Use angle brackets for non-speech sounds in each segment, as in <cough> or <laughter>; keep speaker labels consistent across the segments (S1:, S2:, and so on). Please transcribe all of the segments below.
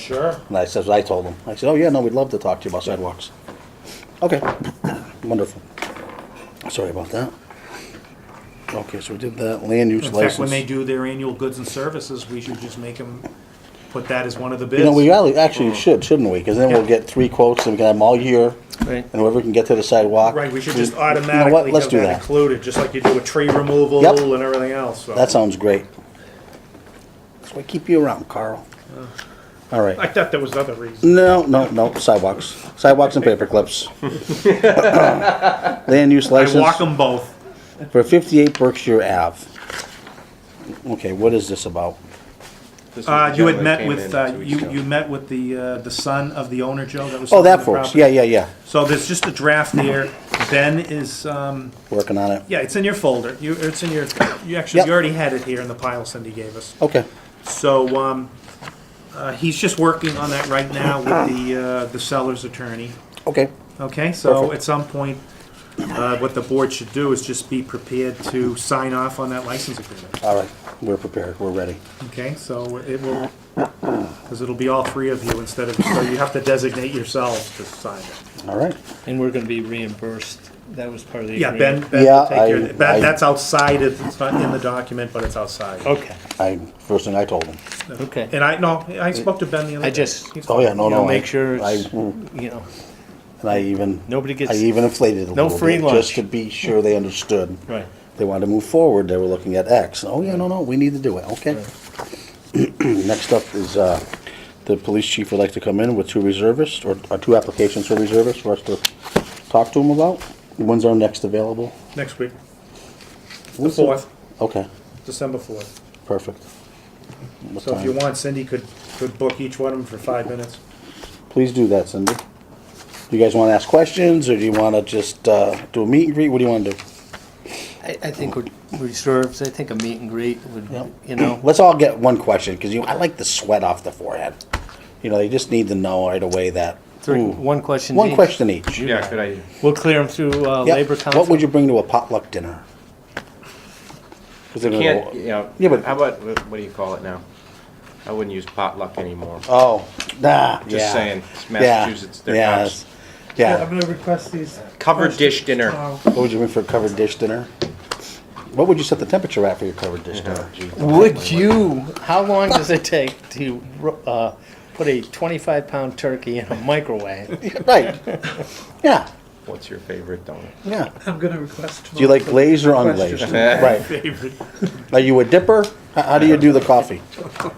S1: Sure.
S2: And I says, I told him, I said, oh yeah, no, we'd love to talk to you about sidewalks. Okay, <coughs> wonderful. Sorry about that. Okay, so we did that, land use
S1: In
S2: license.
S1: fact, when they do their annual goods and services, we should just make them put that as one of the bids.
S2: You know, we really- actually should, shouldn't we? Because then we'll
S1: Mm. Yeah.
S2: get three quotes and we can have them all year.
S3: Right.
S2: And whoever can get to the sidewalk.
S1: Right, we should just
S2: you know what,
S1: automatically
S2: let's
S1: have
S2: do
S1: that included, just like you do with tree removal
S2: Yep.
S1: and everything else, so.
S2: That sounds great. That's why I keep you around, Carl.
S1: Uh.
S2: All right.
S1: I thought there was other reasons.
S2: No, no, no, sidewalks. Sidewalks and
S1: <laughs>
S2: paper clips. <coughs> Land use
S1: I walk
S2: license
S1: them both. Uh,
S2: for fifty-eight Berkshire Ave. Okay, what is this about?
S1: Uh, you had met with, uh, you, you met with the, uh, the son of the owner, Joe, that was.
S2: Oh,
S1: selling
S2: that
S1: the
S2: folks,
S1: property?
S2: yeah, yeah, yeah,
S1: So there's just a draft there. Ben is, um,
S2: working on it.
S1: yeah, it's in your folder. You, it's in your, you actually,
S2: Yep.
S1: you already had it here in the pile Cindy gave us.
S2: Okay,
S1: So, um, uh, he's just working on that right now with the, uh, the seller's attorney.
S2: okay,
S1: Okay, so
S2: Perfect.
S1: at some point, uh, what the board should do is just be prepared to sign off on that license agreement.
S2: all right, we're prepared, we're ready.
S1: Okay, so it will, because it'll be all three of you instead of, so you have to designate yourselves to sign it.
S2: All right,
S3: And we're gonna be reimbursed. That was part of the
S1: Yeah, Ben,
S3: agreement.
S1: Ben
S2: Yeah,
S1: will take care
S2: I-
S1: of that.
S2: I-
S1: That's outside, of- it's not in the document, but it's outside.
S3: Okay,
S2: I, first thing I told him.
S3: okay.
S1: And I, no, I spoke to Ben the other day.
S3: I just-
S1: He's-
S2: Oh, yeah, no,
S3: You
S2: no.
S3: know,
S2: I-
S3: make sure
S2: I,
S3: it's,
S2: mm,
S3: you know,
S2: and I even.
S3: Nobody gets-
S2: I even inflated it a
S3: No
S2: little bit.
S3: free lunch.
S2: Just to be sure they understood.
S3: right.
S2: They wanted to move forward, they were looking at X. Oh, yeah, no, no, we need to do it, okay. <clears throat> Next up is, uh, the police chief would like to come in with two reservists, or, or two applications for reservists for us to talk to him about. When's our next available?
S1: Next week, the
S2: When's
S1: fourth,
S2: Okay,
S1: December fourth.
S2: perfect. What
S1: So if you
S2: time?
S1: want, Cindy could, could book each one of them for five minutes.
S2: Please do that, Cindy. Do you guys wanna ask questions, or do you wanna just, uh, do a meet and greet? What do you wanna do?
S3: I, I think we're reserves. I think a meet and greet would,
S2: Yep.
S3: you know,
S2: Let's all get one question, because you, I like the sweat off the forehead. You know, they just need to know right away that,
S3: three,
S2: ooh.
S3: one question.
S2: One
S3: each.
S2: question each.
S4: Yeah, good idea.
S3: We'll clear them through, uh,
S2: Yep.
S3: labor council.
S2: What would you bring to a potluck dinner? 'Cause they're gonna
S4: Can't,
S2: go-
S4: you know,
S2: Yeah, but-
S4: how about, wh- what do you call it now? I wouldn't use potluck anymore.
S2: Oh, nah. yeah.
S4: Just saying, it's
S2: Yeah,
S4: Massachusetts, their
S2: yeah,
S4: house.
S2: that's- Yeah.
S1: gonna request these.
S4: Covered dish dinner.
S1: Oh.
S2: What would you bring for a covered dish dinner? What would you set the temperature at for your covered dish
S4: <laughs> Oh,
S2: dinner?
S3: Would you, how long does it take to, uh, put a twenty-five pound turkey in a microwave?
S2: <laughs>
S5: <laughs>
S2: Right. Yeah.
S4: What's your favorite donut?
S2: Yeah.
S1: I'm gonna request.
S2: Do you like glazed or unglazed? Right.
S1: Favorite.
S2: Are you a dipper? How, how do you do the coffee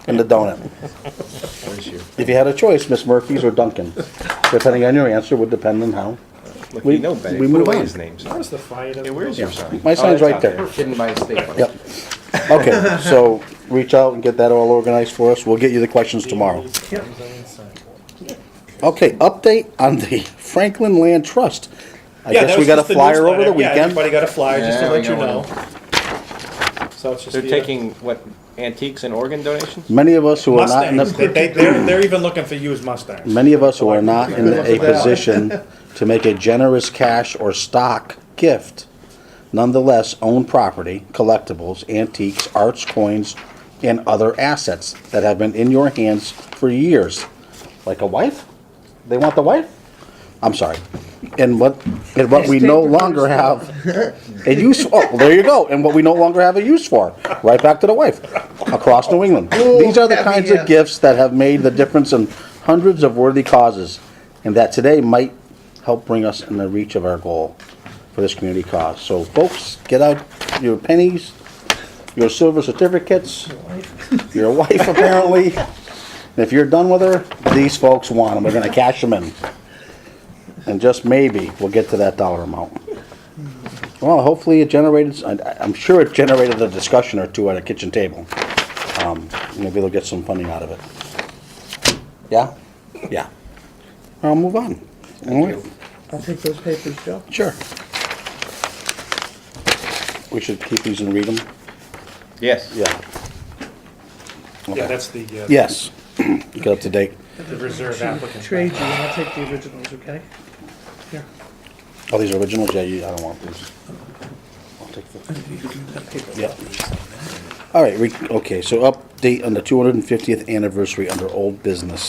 S2: and the donut?
S4: What is your,
S2: If you had a choice, Miss Murphy's or Duncan, depending on your answer, would depend on how.
S4: look,
S2: We-
S4: you know Betty,
S2: we
S4: put
S2: move
S4: away
S2: on.
S4: his name. son.
S1: Where's the fire?
S4: Hey, where's your sign?
S2: My
S4: Oh,
S2: sign's
S4: that's
S2: right
S4: out
S2: there.
S4: Hidden by a staple.
S2: Yep. Okay, so reach out and get that all organized for us. We'll get you the questions tomorrow.
S1: Yep.
S2: Okay, update on the Franklin Land Trust. I guess we got a flyer over the
S1: Yeah,
S2: weekend.
S1: everybody got a flyer, just to
S4: Yeah,
S1: let
S4: we
S1: you
S4: got
S1: know.
S4: one.
S1: So it's just.
S4: They're
S1: the- uh,
S4: taking, what, antiques and organ donations?
S2: Many of us who are not in
S1: Mustangs, they,
S2: the,
S1: they, they're, they're even looking for used Mustangs.
S2: many of us who are not in a position to make a generous cash or stock gift, nonetheless own property, collectibles, antiques, arts, coins, and other assets that have been in your hands for years. Like a wife? They want the wife? I'm sorry. And what, and what we no longer have <laughs> a use, oh, well, there you go, and what we no longer have a use for, right back to the wife, across New England. These are the kinds of gifts that have made the difference in hundreds of worthy causes, and that today might help bring us in the reach of our goal for this community cause. So folks, get out your pennies, your silver certificates, your wife apparently, and if you're done with her, these folks want them, we're gonna cash them in. And just maybe, we'll get to that dollar amount. Well, hopefully it generated, I- I'm sure it generated a discussion or two at a kitchen table. Um, Maybe they'll get some funding out of it. Yeah? Yeah. I'll move on. All right,
S5: I'll take those papers, Joe.
S2: sure. We should keep these and read them?
S4: Yes.
S2: Yeah.
S1: Yeah, that's the, uh,
S2: Yes. <clears throat> Get up to date.
S1: the reserve applicant.
S5: Trade you, and I'll take the originals, okay?
S2: Oh, these are originals? Yeah, you, I don't want these. I'll take the. Yeah. All right, re- okay, so update on the 250th anniversary under old business.